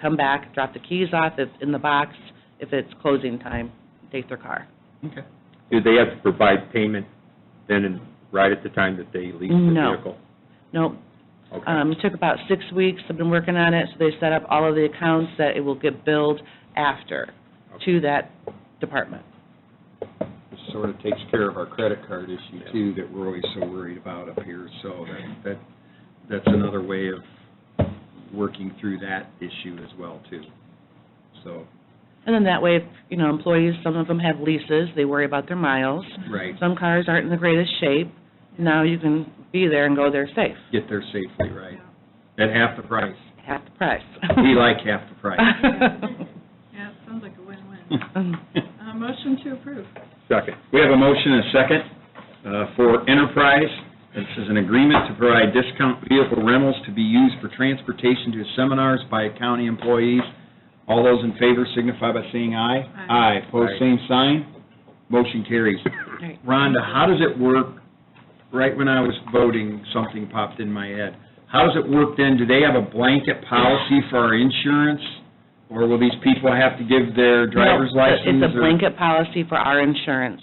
come back, drop the keys off, it's in the box, if it's closing time, take their car. Okay. Do they have to provide payment then and right at the time that they lease the No. vehicle? Nope, Okay. um, it took about six weeks, I've been working on it, so they set up all of the accounts that it will get billed after to that department. Which sort of takes care of our credit card issue too, that we're always so worried about up here. So that, that, that's another way of working through that issue as well too. So, And then that way, if, you know, employees, some of them have leases, they worry about their miles. right, Some cars aren't in the greatest shape, now you can be there and go there safe, get there safely, right? At half the price. half the price. We like half the price. Yeah, it sounds like a win-win. Uh, Motion to approve. Second. We have a motion and a second uh, for Enterprise. This is an agreement to provide discount vehicle rentals to be used for transportation to seminars by county employees. All those in favor signify by saying aye. Aye. Aye, pose same sign, motion carries. Right. Rhonda, how does it work? Right when I was voting, something popped in my head. How does it work then? Do they have a blanket policy for our insurance? Or will these people have to give their driver's No, license? it's a- It's a or- blanket policy for our insurance,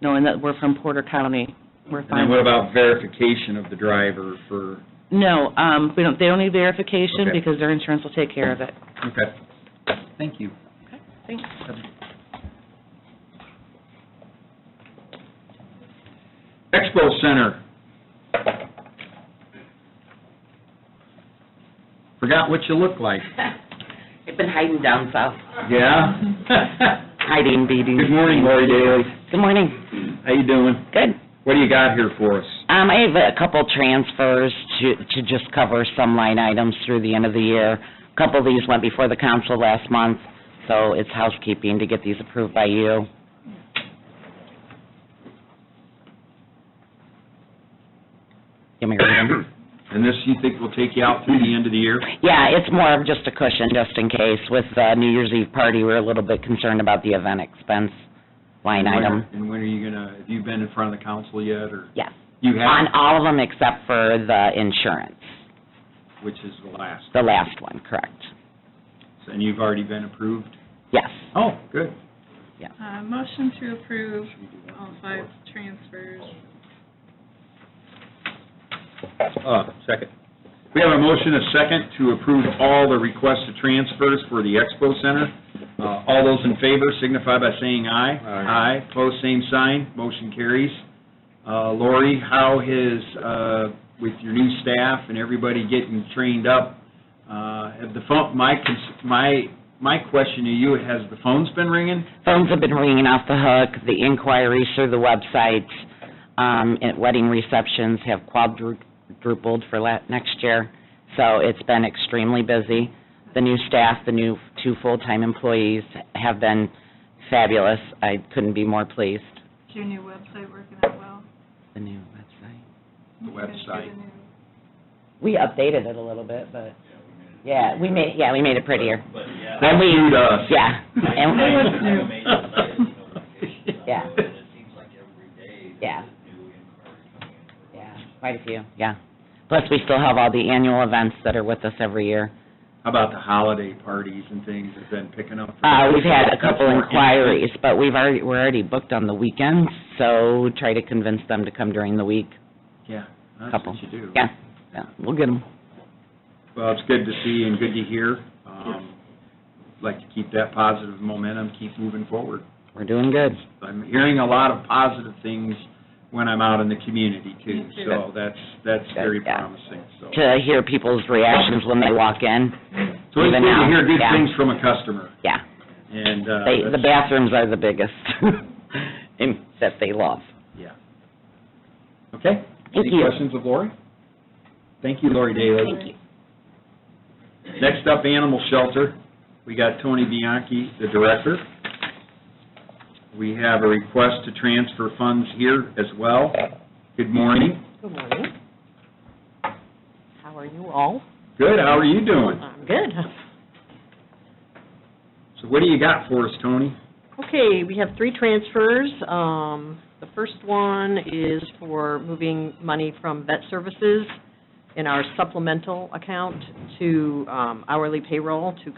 knowing that we're from Porter County, we're And then what fine. about verification of the driver for, No, um, we don't, they don't need verification Okay. because their insurance will take care of it. okay. Thank you. Thanks. Expo Center. Forgot what you look like. I've been hiding down south, Yeah? hiding, beating. Good morning, Lori Daly. Good morning. How you doing? Good. What do you got here for us? Um, I have a couple transfers to, to just cover some line items through the end of the year. A Couple of these went before the council last month, so it's housekeeping to get these approved by you. Give me a reading. And this, you think will take you out through the end of the year? Yeah, it's more of just a cushion, just in case. With the New Year's Eve party, we're a little bit concerned about the event expense Oh, line item. And when are you gonna, have you been in front of the council yet, or? Yes. You On have, all of them except for the insurance, which is the last, the last one, correct? and you've already been approved? Yes. Oh, good. Uh, Motion to approve all five transfers. Uh, second. We have a motion, a second, to approve all the requests to transfers for the Expo Center. Uh, All those in favor signify by saying aye. Aye. Aye, pose same sign, motion carries. Uh, Lori, how is, uh, with your new staff and everybody getting trained up, uh, have the phone, my, cons- my, my question to you, has the phones been ringing? Phones have been ringing off the hook, the inquiries through the websites, um, and wedding receptions have quadrupled for la- next year, so it's been extremely busy. The new staff, the new two full-time employees have been fabulous. I couldn't be more pleased. Is your new website working out well? The new website. The You guys do website. new- We updated it a little bit, but, yeah, we made, yeah, we made it prettier. But yeah. And we- new to us. Yeah. And- I It was have new. amazing layers of notifications on there, Yeah. And it seems like every day Yeah. there's a new inquiry coming in. for us. Yeah, quite a few, yeah. Plus, we still have all the annual events that are with us every year. How about the holiday parties and things have been picking up? Uh, we've had a couple That's more inquiries, but we've already, we're already booked on the weekends, so try to convince them to come during the week. Yeah, that's Couple. what you do. Yeah, yeah, we'll get them. Well, it's good to see and good to hear. Um, Like to keep that positive momentum, keep moving forward. We're doing good. I'm hearing a lot of positive things when I'm out in the community too, Me too. so that's, that's very Yeah. promising, so. To hear people's reactions when they walk in, So it's good even to now, hear good yeah. things from a customer, yeah. and, uh, They, the that's- bathrooms are the biggest, in- that they love. yeah. Okay? Thank Any you. questions of Lori? Thank you, Lori Daly. Thank you. Next up, Animal Shelter. We got Tony Bianchi, the director. We have a request to transfer funds here as well. Good morning. Good morning. How are you all? Good, how are you doing? I'm good. So what do you got for us, Tony? Okay, we have three transfers. Um, The first one is for moving money from vet services in our supplemental account to um, hourly payroll to